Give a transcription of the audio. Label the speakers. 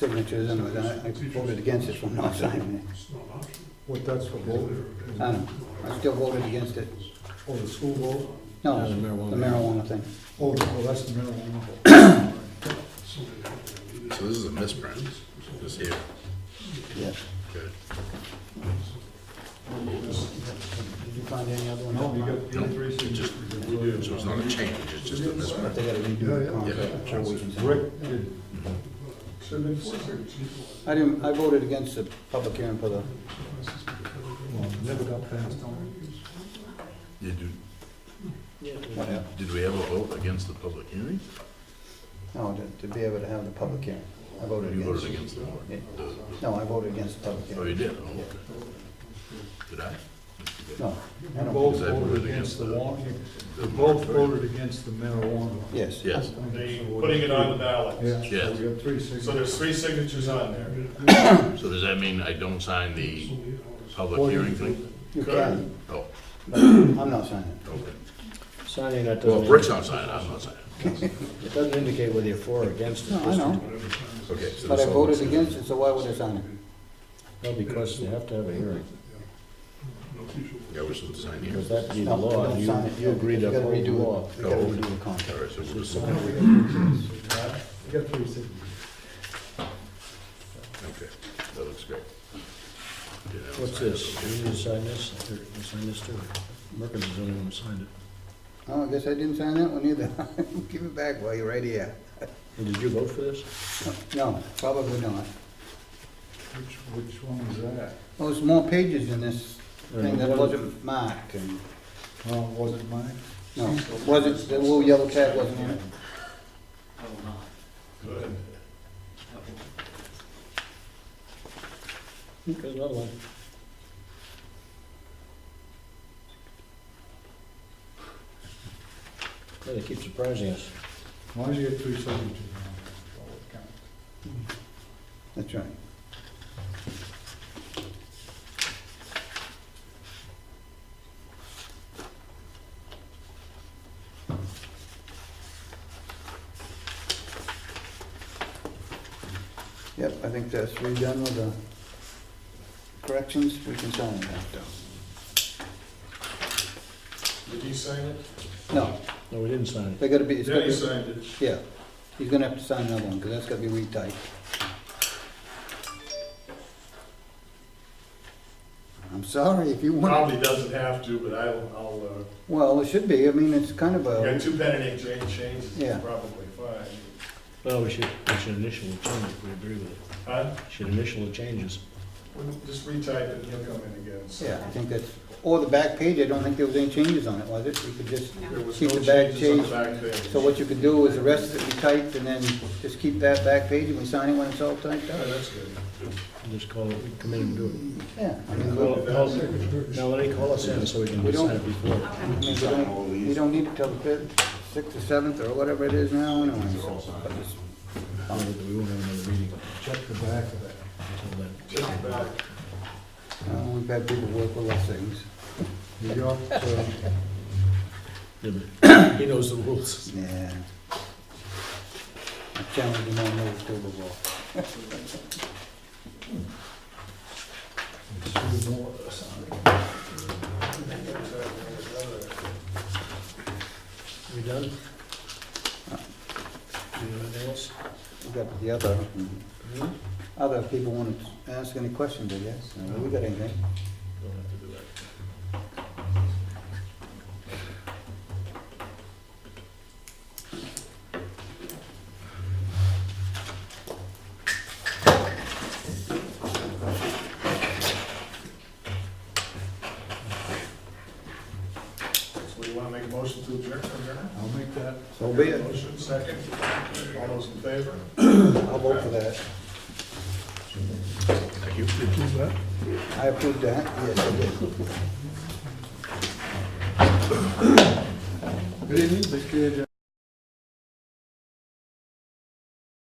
Speaker 1: signatures and I I voted against it from not signing it.
Speaker 2: What that's for voting?
Speaker 1: I don't know. I still voted against it.
Speaker 2: Oh, the school vote?
Speaker 1: No,
Speaker 3: Yeah, the marijuana.
Speaker 1: the marijuana thing.
Speaker 2: Oh, oh, that's the marijuana vote.
Speaker 3: So this is a misprint, this here,
Speaker 1: Yes.
Speaker 3: good.
Speaker 1: Did you find any other one?
Speaker 2: No, you got the three signatures.
Speaker 3: So it's not a change, it's just a
Speaker 1: But
Speaker 3: misprint.
Speaker 1: they gotta redo the contract, so we can sign it.
Speaker 2: Rick did. Seven, four, six.
Speaker 1: I didn't, I voted against the public hearing for the,
Speaker 2: Well, Never got passed on.
Speaker 3: Did you,
Speaker 1: what happened?
Speaker 3: did we ever vote against the public hearing?
Speaker 1: No, to, to be able to have the public hearing. I voted
Speaker 3: You
Speaker 1: against
Speaker 3: voted
Speaker 1: it.
Speaker 3: against the warrant? The-
Speaker 1: No, I voted against the public
Speaker 3: Oh,
Speaker 1: hearing.
Speaker 3: you did, oh, okay. Did I? Oh,
Speaker 1: No, I
Speaker 2: You
Speaker 1: don't.
Speaker 2: both voted against the warrant, you both voted against the marijuana.
Speaker 1: Yes.
Speaker 3: Yes,
Speaker 4: The, putting it on the
Speaker 2: Yeah,
Speaker 4: ballot.
Speaker 3: Yes.
Speaker 2: we got three
Speaker 4: So
Speaker 2: signatures.
Speaker 4: there's three signatures on there.
Speaker 3: so does that mean I don't sign the public hearing thing?
Speaker 1: You can,
Speaker 3: Oh,
Speaker 1: but I'm not signing it.
Speaker 3: okay.
Speaker 5: Signing that
Speaker 3: Well,
Speaker 5: doesn't,
Speaker 3: if Rick's not signing, I'm not signing.
Speaker 5: it doesn't indicate whether you're for or against it.
Speaker 1: No, I know,
Speaker 3: Okay. so
Speaker 1: but I
Speaker 3: this all looks
Speaker 1: voted against it, so why would I sign it?
Speaker 5: No, because you have to have a hearing,
Speaker 3: good. Yeah, we're supposed to sign here.
Speaker 5: because that'd be the
Speaker 1: No,
Speaker 5: law,
Speaker 1: don't
Speaker 5: and you,
Speaker 1: sign it.
Speaker 5: you agreed to
Speaker 1: You gotta
Speaker 5: uphold the
Speaker 1: redo it.
Speaker 5: law.
Speaker 1: You gotta redo the contract.
Speaker 3: All right, so we'll just,
Speaker 2: So now
Speaker 3: okay.
Speaker 2: we got three signatures. We got three signatures.
Speaker 3: That looks great. Yeah, I'll
Speaker 5: What's
Speaker 3: sign it.
Speaker 5: this? You need to sign this, Here, you sign this too. Merkins is the only one who signed it.
Speaker 1: Oh, I guess I didn't sign that one either. Give it back while you're right here.
Speaker 5: And did you vote for this?
Speaker 1: No, probably not.
Speaker 2: Which, which one was that?
Speaker 1: Well, there's more pages in this thing that
Speaker 5: Right.
Speaker 1: wasn't marked and,
Speaker 2: Oh, was it mine?
Speaker 1: no, wasn't, the little yellow tag wasn't in it.
Speaker 5: There's another one. Yeah, they keep surprising us.
Speaker 2: As long as you get three signatures on it, that's all that counts.
Speaker 1: That's right. Yep, I think that's redone with the corrections, we can sign it after.
Speaker 4: Did he sign it?
Speaker 1: No,
Speaker 5: No, we didn't sign it.
Speaker 1: they gotta be, it's
Speaker 4: Yeah,
Speaker 1: gotta
Speaker 4: he
Speaker 1: be,
Speaker 4: signed it.
Speaker 1: yeah, he's gonna have to sign another one, because that's gotta be retyped. I'm sorry, if you want.
Speaker 4: Probably doesn't have to, but I'll, I'll,
Speaker 1: Well, it should be, I mean, it's kind of
Speaker 4: uh, you
Speaker 1: a,
Speaker 4: got two pen and ink cha- changes,
Speaker 1: Yeah.
Speaker 4: it's probably fine.
Speaker 5: Well, we should, we should initial the changes, we agree with it.
Speaker 4: Huh?
Speaker 5: Should initial the changes.
Speaker 4: We'll Just retype it, and he'll come in again. so.
Speaker 1: yeah, I think that's, or the back page, I don't think there was any changes on it, was it? You could just,
Speaker 4: There was
Speaker 1: Keep
Speaker 4: no
Speaker 1: the back
Speaker 4: changes on the back page.
Speaker 1: so what you could do is the rest that we typed, and then just keep that back page, and we sign it when it's all typed
Speaker 4: Yeah,
Speaker 1: up.
Speaker 4: that's good.
Speaker 5: Just call it, come in and do it.
Speaker 1: Yeah, I mean, we-
Speaker 5: Call- call- Now, let me call us in so we can
Speaker 1: We don't-
Speaker 5: sign it before.
Speaker 1: I mean, we don't, we don't need it till the fifth, sixth, or seventh, or whatever it is now, anyway, so. but it's-
Speaker 5: Uh, We won't have another meeting
Speaker 2: Check the back of that.
Speaker 5: until then.
Speaker 4: Just the back.
Speaker 1: uh, We've had people work with us things,
Speaker 2: New York, uh,
Speaker 5: Yeah, but He knows the rules.
Speaker 1: yeah. I challenge them on those too before.
Speaker 2: it's two more, sorry.
Speaker 5: We done? Do you have anything else?
Speaker 1: We got the other, other people want to ask any questions, I guess, Uh, we got anything?
Speaker 5: Don't have to do that.
Speaker 4: So you wanna make a motion to adjourn from here?
Speaker 2: I'll make that.
Speaker 1: So be it,
Speaker 4: Motion, second. All those in favor?
Speaker 1: I'll vote for that.
Speaker 3: Thank you.
Speaker 1: I approved that, yes, I did.
Speaker 2: Good evening, Mr. Chair.